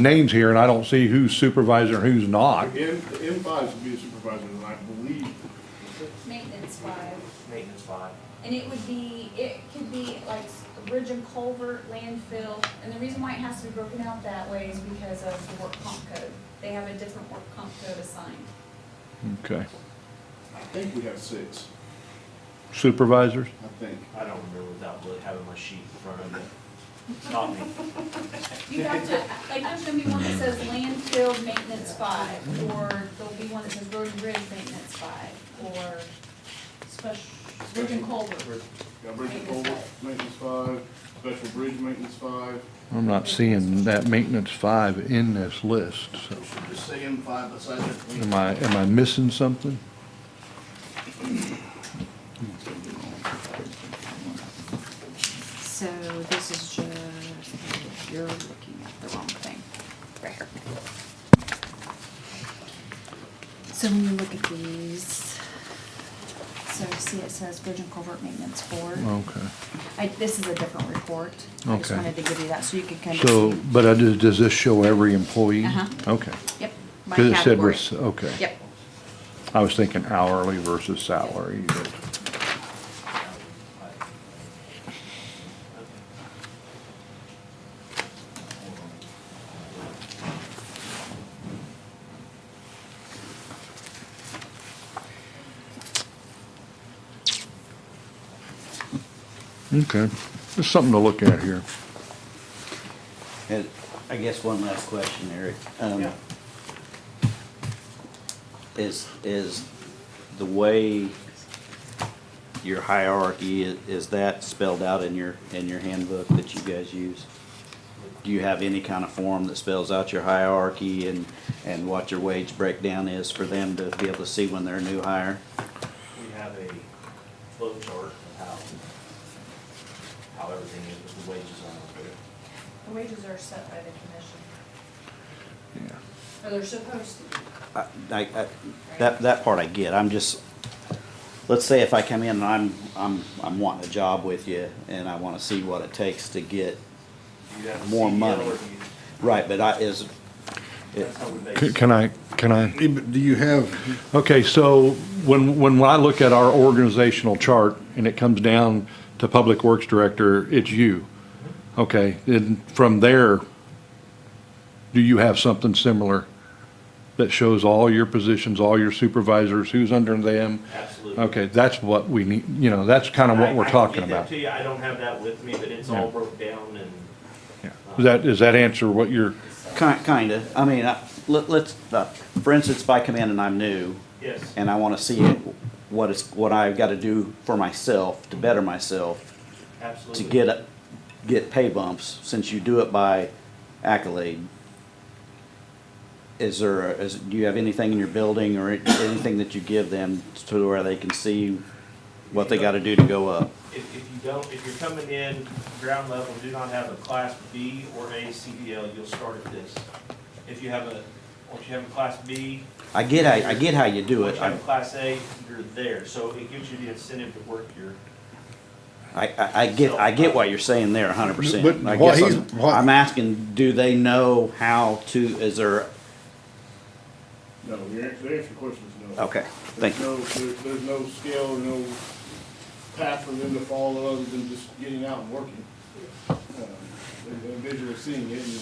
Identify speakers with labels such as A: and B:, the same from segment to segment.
A: names here, and I don't see who's supervisor and who's not.
B: M, M five should be the supervisor, and I believe,
C: Maintenance five,
D: maintenance five.
C: and it would be, it could be like bridge and culvert, landfill, and the reason why it has to be broken out that way is because of the work comp code. They have a different work comp code assigned.
A: Okay.
B: I think we have six,
A: Supervisors?
B: I think.
D: I don't remember without really having my sheet in front of me. Not me.
C: You have to, like, there's gonna be one that says landfill maintenance five, or there'll be one that says road and bridge maintenance five, or special, bridge and culvert.
B: Got bridge and culvert, maintenance five, special bridge maintenance five.
A: I'm not seeing that maintenance five in this list. so
B: We should just say M five beside it.
A: Am I, am I missing something?
E: So this is just, you're looking at the wrong thing, right here. So when you look at these, so see it says bridge and culvert maintenance board.
A: Okay.
E: I, this is a different report. I just
A: Okay.
E: wanted to give you that so you could kind of
A: So,
E: see.
A: but I just, does this show every employee?
E: Uh-huh.
A: Okay.
E: Yep. by
A: Because it said we're,
E: category.
A: s- okay.
E: Yep.
A: I was thinking hourly versus salary, but, okay. There's something to look at here.
F: And I guess one last question, Eric. Um,
B: Yeah.
F: Is, is the way your hierarchy, i- is that spelled out in your, in your handbook that you guys use? Do you have any kind of form that spells out your hierarchy and, and what your wage breakdown is for them to be able to see when they're a new hire?
D: We have a flow chart of how, how everything is, with the wages on it.
C: The wages are set by the commission,
A: Yeah.
C: or they're supposed to be.
F: I, I, I- that, that part I get, I'm just, let's say if I come in and I'm, I'm, I'm wanting a job with you, and I wanna see what it takes to get,
D: You have E a
F: More
D: CDL
F: money.
D: review.
F: right, but I, is, it-
D: That's how we base
A: C-
D: it.
A: Can I, can I?
G: Yeah, but Do you have,
A: Okay, so when, when I look at our organizational chart and it comes down to Public Works Director, it's you. Okay, and from there, do you have something similar that shows all your positions, all your supervisors, who's under them?
D: Absolutely.
A: Okay, that's what we need, you know, that's kind of
D: I-
A: what
D: I
A: we're
D: can
A: talking
D: get that
A: about.
D: to you. I don't have that with me, but it's all
A: Yeah.
D: broke down and
A: Yeah. Does that, does that answer what you're,
F: ki- kinda, I mean, I, let, let's, uh, for instance, if I come in and I'm new,
D: yes.
F: and I wanna see what is, what I've gotta do for myself, to better myself, to
D: Absolutely.
F: get, a- get pay bumps, since you do it by accolade, is there, a- is, do you have anything in your building or anything that you give them to where they can see what they gotta do to go up?
D: If, if you don't, if you're coming in ground level, do not have a class B or A CDL, you'll start at this. If you have a, once you have a class B,
F: I get, I, I get how you do
D: once
F: it.
D: you have
F: I,
D: a class A, you're there. So it gives you the incentive to work your,
F: I, I get, I get what you're saying there hundred percent.
G: But
F: I
G: what
F: guess
G: he's-
F: I'm-
G: what-
F: I'm asking, do they know how to, is there,
B: No, your, an- the answer to your question is no.
F: okay, thank you.
B: There's no, there- there's no scale, no path for them to follow other than just getting out and working. Um, they- They're visually seeing it, and,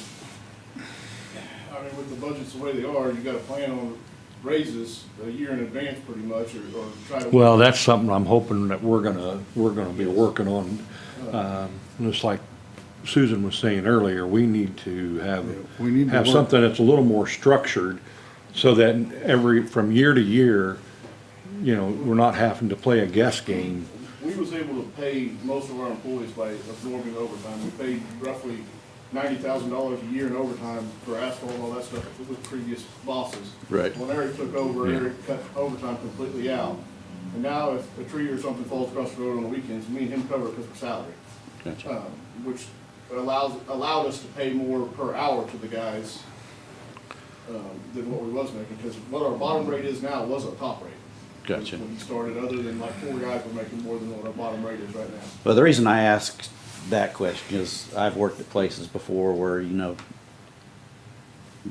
B: I mean, with the budgets the way they are, you gotta plan on raises a year in advance pretty much, or, or try to.
A: well, that's something I'm hoping that we're gonna, we're gonna be working on. Um, Just like Susan was saying earlier, we need to have,
G: we need to
A: have
G: work-
A: something that's a little more structured so that every, from year to year, you know, we're not having to play a guess game.
B: We was able to pay most of our employees by absorbing overtime. We paid roughly ninety thousand dollars a year in overtime for asphalt and all that stuff with previous bosses.
G: Right.
B: When Eric took over, Eric cut overtime completely out. And now if a tree or something falls across the road on the weekends, me and him cover it because of salary.
F: Gotcha.
B: Um, which allows, allowed us to pay more per hour to the guys, um, than what we was making. Because what our bottom rate is now was our top rate.
F: Gotcha.
B: When we started, other than like four guys were making more than what our bottom rate is right now.
F: Well, the reason I ask that question is I've worked at places before where, you know,